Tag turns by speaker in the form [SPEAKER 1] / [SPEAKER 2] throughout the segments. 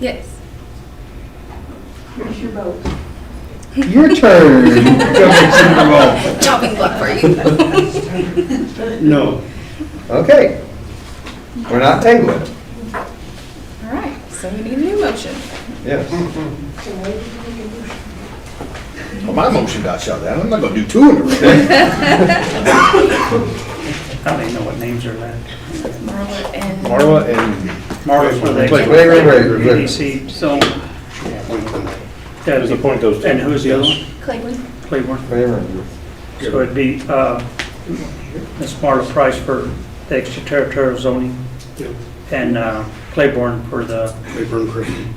[SPEAKER 1] Yes.
[SPEAKER 2] Here's your vote.
[SPEAKER 3] Your turn. Go make Super
[SPEAKER 1] Chopping block for you.
[SPEAKER 4] No.
[SPEAKER 3] Bowl. Okay. We're not tabling.
[SPEAKER 1] All right, so we need a new motion.
[SPEAKER 3] Yes.
[SPEAKER 5] Well, my motion got shot down. I'm not gonna do two in a row.
[SPEAKER 4] I don't even know what names are left.
[SPEAKER 1] Marla and.
[SPEAKER 3] Marla and
[SPEAKER 4] Marcus for the.
[SPEAKER 3] Wait, wait, wait, wait, wait.
[SPEAKER 4] EDC, so. There's a point those And who's the other one?
[SPEAKER 1] Cleveland.
[SPEAKER 4] Cleveland.
[SPEAKER 3] Cameron.
[SPEAKER 4] So it'd be, uh, Ms. Marla Price for the extraterritorial zoning. And, uh, Claiborne for the. Claiborne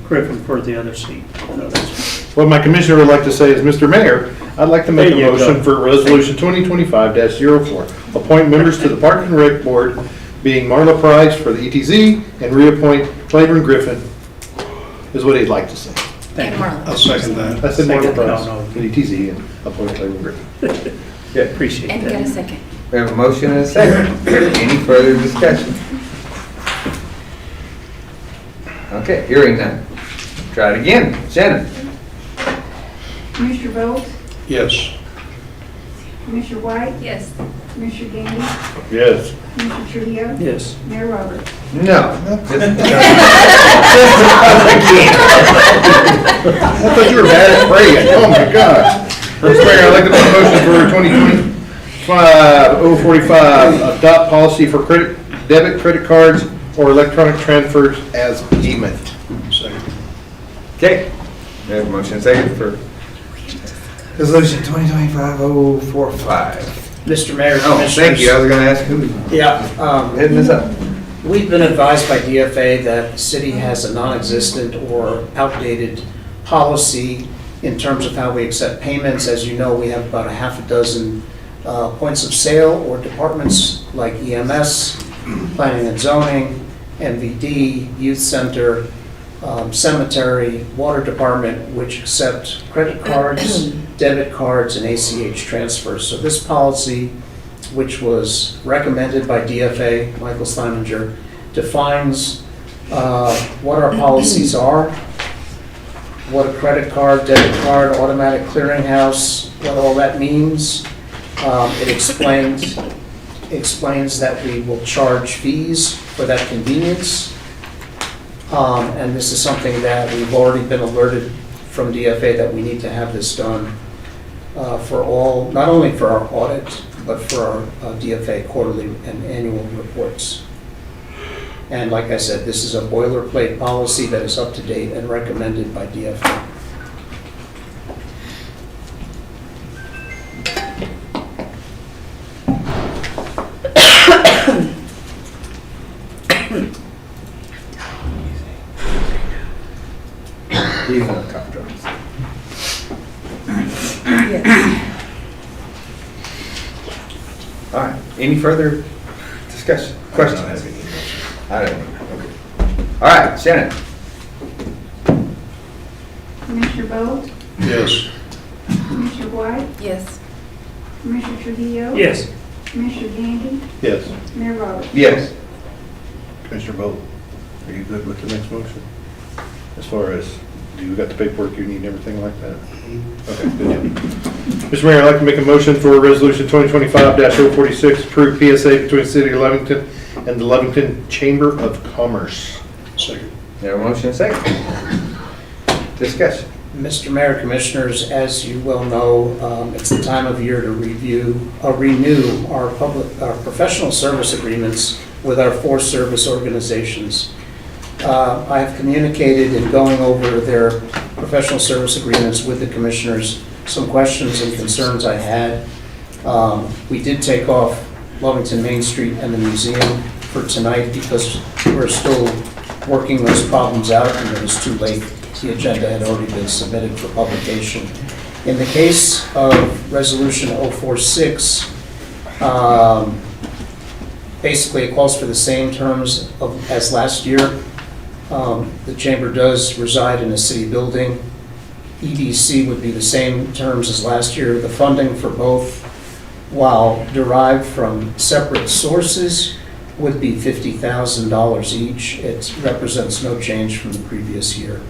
[SPEAKER 4] Griffin. for the other seat. No, that's-
[SPEAKER 5] What my commissioner would like to say is, Mr. Mayor, I'd like to make a
[SPEAKER 4] There you go.
[SPEAKER 5] motion for Resolution 2025-04. Appoint members to the Park and Rec Board, being Marla Price for the ETZ, and reappoint Claiborne Griffin, is what he'd like to say.
[SPEAKER 1] And Marla.
[SPEAKER 6] second that.
[SPEAKER 5] I said Marla
[SPEAKER 4] Second, no,
[SPEAKER 5] Price
[SPEAKER 4] no.
[SPEAKER 5] for the ETZ and appoint Claiborne Griffin.
[SPEAKER 4] Appreciate that.
[SPEAKER 1] And you got a second.
[SPEAKER 3] We have a motion and a second. Any further discussion? Okay, hearing none. Try it again. Shannon?
[SPEAKER 2] Commissioner Bolt,
[SPEAKER 6] Yes.
[SPEAKER 2] Commissioner White,
[SPEAKER 1] Yes.
[SPEAKER 2] Commissioner Gandy,
[SPEAKER 5] Yes.
[SPEAKER 2] Commissioner Trujillo,
[SPEAKER 4] Yes.
[SPEAKER 2] Mayor Roberts.
[SPEAKER 3] No. Just- I thought you were bad at praying. Oh my God.
[SPEAKER 5] First Mayor, I'd like to make a motion for 2025-045, adopt policy for credit, debit credit cards or electronic transfers as payment.
[SPEAKER 6] Second.
[SPEAKER 3] Okay. We have a motion and a second for resolution 2025-045.
[SPEAKER 7] Mr. Mayor,
[SPEAKER 3] Oh,
[SPEAKER 7] Commissioners.
[SPEAKER 3] thank you. I was gonna ask who.
[SPEAKER 7] Yeah, um,
[SPEAKER 3] Hitting this up.
[SPEAKER 7] we've been advised by DFA that the city has a non-existent or outdated policy in terms of how we accept payments. As you know, we have about a half a dozen uh, points of sale or departments like EMS, planning and zoning, MVD, youth center, um, cemetery, water department, which accept credit cards, debit cards, and ACH transfers. So this policy which was recommended by DFA, Michael Steininger, defines uh, what our policies are, what a credit card, debit card, automatic clearinghouse, what all that means. Um, It explains, explains that we will charge fees for that convenience. Um, And this is something that we've already been alerted from DFA that we need to have this done uh, for all, not only for our audit, but for our uh, DFA quarterly and annual reports. And like I said, this is a boilerplate policy that is up to date and recommended by DFA.
[SPEAKER 3] He's on top drugs. All right, any further discussion, questions? I don't know, okay. All right, Shannon?
[SPEAKER 2] Commissioner Bolt,
[SPEAKER 6] Yes.
[SPEAKER 2] Commissioner White,
[SPEAKER 1] Yes.
[SPEAKER 2] Commissioner Trujillo.
[SPEAKER 4] Yes.
[SPEAKER 2] Commissioner Gandy,
[SPEAKER 5] Yes.
[SPEAKER 2] Mayor Roberts.
[SPEAKER 3] Yes.
[SPEAKER 5] Commissioner Bowe, are you good with the next motion? As far as, do you got the paperwork you need and everything like that? Okay, good deal. Mr. Mayor, I'd like to make a motion for Resolution 2025-046, approve PSA between City of Levington and the Levington Chamber of Commerce.
[SPEAKER 6] Second.
[SPEAKER 3] There a motion and second? Discussion.
[SPEAKER 7] Mr. Mayor, Commissioners, as you well know, um, it's the time of year to review, uh, renew our public, our professional service agreements with our four service organizations. Uh, I have communicated in going over their professional service agreements with the Commissioners, some questions and concerns I had. Um, We did take off Lovington Main Street and the museum for tonight because we're still working those problems out and it was too late. The agenda had already been submitted for publication. In the case of Resolution 046, um, basically it calls for the same terms of- as last year. Um, The chamber does reside in a city building. EDC would be the same terms as last year. The funding for both, while derived from separate sources, would be $50,000 each. It represents no change from the previous year.